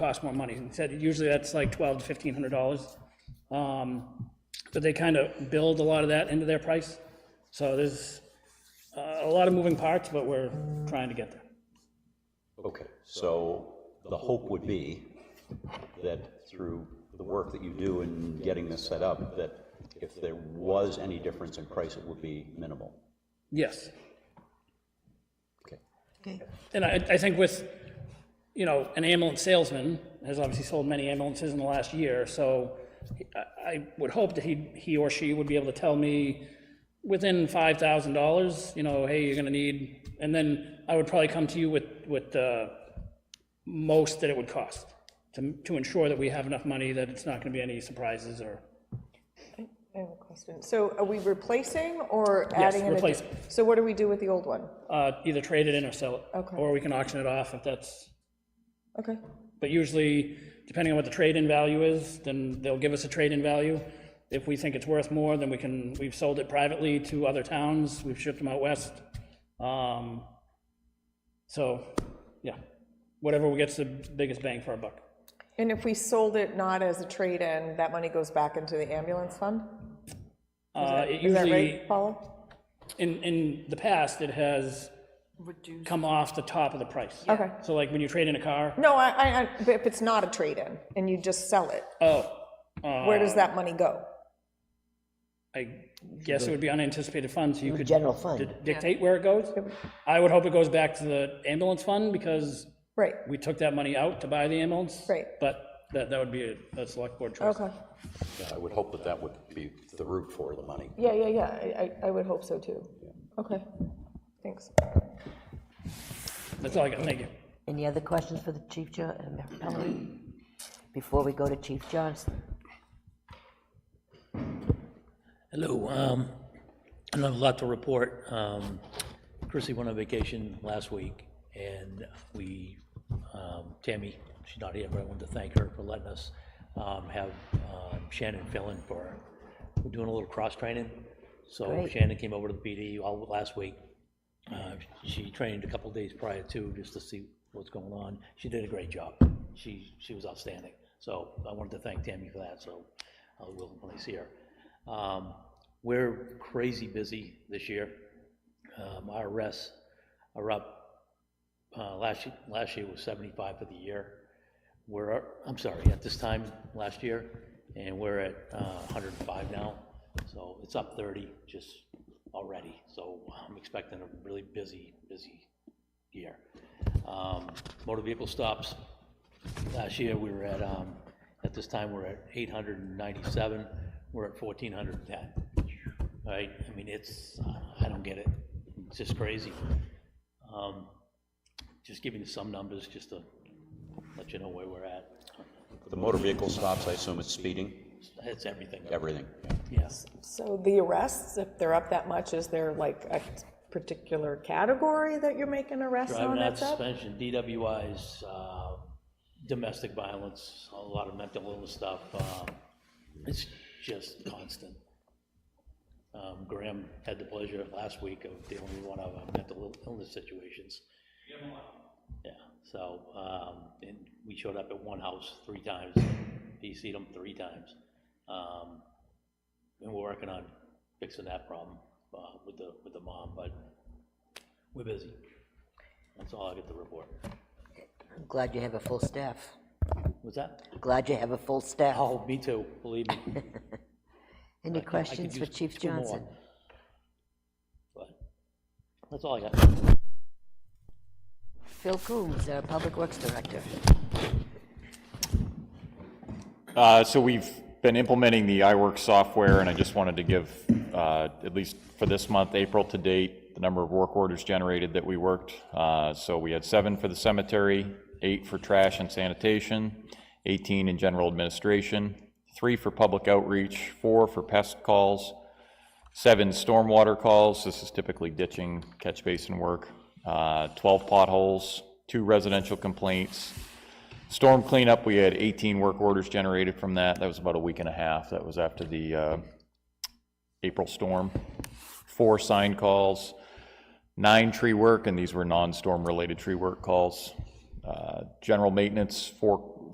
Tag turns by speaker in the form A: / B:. A: cost more money. He said usually that's like twelve to fifteen hundred dollars. Um, But they kind of build a lot of that into their price. So there's uh, a lot of moving parts, but we're trying to get there.
B: Okay, so the hope would be that through the work that you do in getting this set up, that if there was any difference in price, it would be minimal.
A: Yes.
B: Okay.
C: Okay,
A: And I, I think with, you know, an ambulance salesman has obviously sold many ambulances in the last year, so I, I would hope that he, he or she would be able to tell me within five thousand dollars, you know, hey, you're gonna need, and then I would probably come to you with, with the most that it would cost to, to ensure that we have enough money, that it's not gonna be any surprises or,
C: I have a question. So are we replacing or
A: Yes,
C: adding? an addi-
A: replacing.
C: So what do we do with the old one?
A: uh, either trade it in or sell it.
C: Okay.
A: Or we can auction it off if that's
C: Okay,
A: But usually, depending on what the trade-in value is, then they'll give us a trade-in value. If we think it's worth more, then we can, we've sold it privately to other towns, we've shipped them out west. Um, So, yeah, whatever gets the biggest bang for our buck.
C: and if we sold it not as a trade-in, that money goes back into the ambulance fund?
A: Uh, It
C: Is that
A: usually,
C: right, Paula?
A: in, in the past, it has come off the top of the price.
C: Okay.
A: So like when you trade in a car,
C: No, I, I, I- but if it's not a trade-in and you just sell it,
A: oh,
C: where does that money go?
A: I guess it would be unanticipated funds, so you could
D: General fund.
A: di- dictate where it goes. I would hope it goes back to the ambulance fund, because
C: Right,
A: we took that money out to buy the ambulance.
C: Right.
A: But that, that would be a- a select board choice.
C: okay.
B: Yeah, I would hope that that would be the route for the money.
C: Yeah, yeah, yeah, I, I I would hope so too. Okay, thanks.
A: That's all I got, thank you.
D: Any other questions for the Chief John, uh, Pelley, before we go to Chief Johnson?
E: Hello, um, I don't have a lot to report. Um, Chrissy went on vacation last week, and we, um, Tammy, she's not here, but I wanted to thank her for letting us um, have um, Shannon fill in for her. We're doing a little cross-training, so
D: Great.
E: Shannon came over to the PD all last week. Uh, She trained a couple days prior to, just to see what's going on. She did a great job. She, she was outstanding. So I wanted to thank Tammy for that, so I will when I see her. Um, We're crazy busy this year. Um, Our rests are up, uh, last, ye- last year was 75 for the year. We're, at- I'm sorry, at this time last year, and we're at uh, 105 now, so it's up 30 just already. So uh, I'm expecting a really busy, busy year. Um, Motor vehicle stops, last year, we were at, um, at this time, we're at 897, we're at 1,410. Right, I mean, it's, uh, I don't get it, it's just crazy. Um, Just giving you some numbers, just to let you know where we're at.
B: The motor vehicle stops, I assume it's speeding,
E: It's everything,
B: everything.
E: yes.
C: So the arrests, if they're up that much, is there like a particular category that you're making arrests on
E: Driving out
C: that's up?
E: suspension, DWIs, uh, domestic violence, a lot of mental illness stuff. um, It's just constant. Um, Graham had the pleasure last week of dealing with one of our mental illness situations. Yeah, so, um, and we showed up at one house three times, PC'd them three times. Um, And we're working on fixing that problem uh, with the, with the mom, but we're busy. That's all I get to report.
D: I'm glad you have a full staff.
E: What's that?
D: Glad you have a full staff.
E: Oh, me too, believe me.
D: Any
E: I could- I could
D: questions for
E: use
D: Chief
E: two more.
D: Johnson?
E: But That's all I got.
D: Phil Coombs, our Public Works Director.
F: Uh, So we've been implementing the iWork software, and I just wanted to give, uh, at least for this month, April to date, the number of work orders generated that we worked. Uh, So we had seven for the cemetery, eight for trash and sanitation, 18 in general administration, three for public outreach, four for pest calls, seven stormwater calls, this is typically ditching, catch basin work, uh, 12 potholes, two residential complaints, Storm cleanup, we had 18 work orders generated from that. That was about a week and a half. That was after the uh, April storm. Four sign calls, nine tree work, and these were non-storm related tree work calls. Uh, General maintenance, four